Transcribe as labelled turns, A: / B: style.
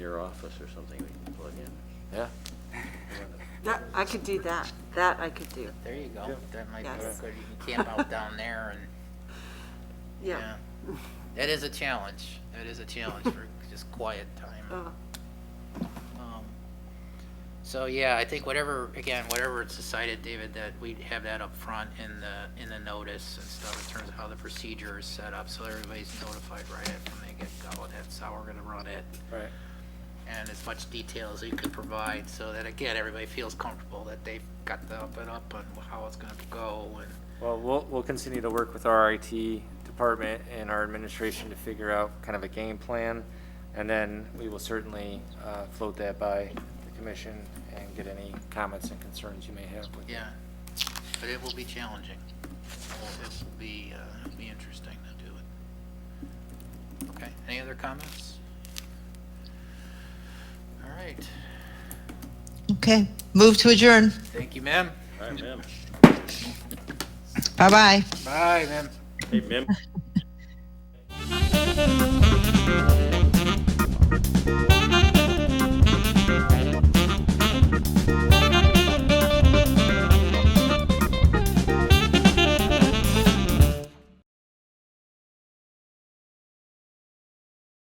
A: your office or something we can plug in.
B: Yeah,
C: That, I could do that. That I could do.
D: There you go. That might be
C: Yes.
D: good. You can camp out down there and,
C: Yeah.
D: yeah. That is a challenge. That is a challenge for just quiet time.
C: Oh,
D: Um, So, yeah, I think whatever, again, whatever it's decided, David, that we have that up front in the, in the notice and stuff in terms of how the procedure is set up, so everybody's notified right at when they get going. That's how we're gonna run it.
B: right.
D: and as much detail as you can provide, so that again, everybody feels comfortable that they've got the up and up on how it's gonna go and.
B: Well, we'll, we'll continue to work with our IT department and our administration to figure out kind of a game plan. And then we will certainly uh, float that by the commission and get any comments and concerns you may have with it.
D: Yeah, but it will be challenging. It will be, uh, be interesting to do it. Okay, any other comments? All right,
E: Okay, move to adjourn.
D: thank you, ma'am.
A: All right, ma'am.
E: Bye-bye.
D: Bye, ma'am.
A: Hey, ma'am.